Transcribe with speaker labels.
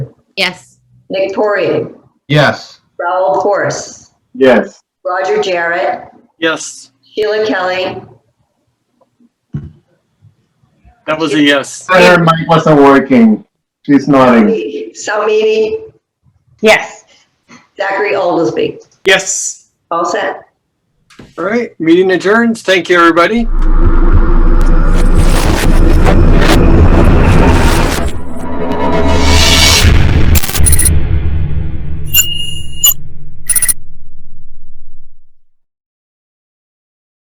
Speaker 1: Yes.
Speaker 2: Nick Porian,
Speaker 3: Yes.
Speaker 2: Raul Porce,
Speaker 4: Yes.
Speaker 2: Roger Jarrett,
Speaker 5: Yes,
Speaker 2: Sheila Kelly,
Speaker 5: that was a yes.
Speaker 4: Her mic wasn't working. She's nodding.
Speaker 2: Salmini,
Speaker 6: Yes.
Speaker 2: Zachary Oldesby.
Speaker 5: Yes.
Speaker 2: All set?
Speaker 5: All right, meeting adjourns. Thank you, everybody.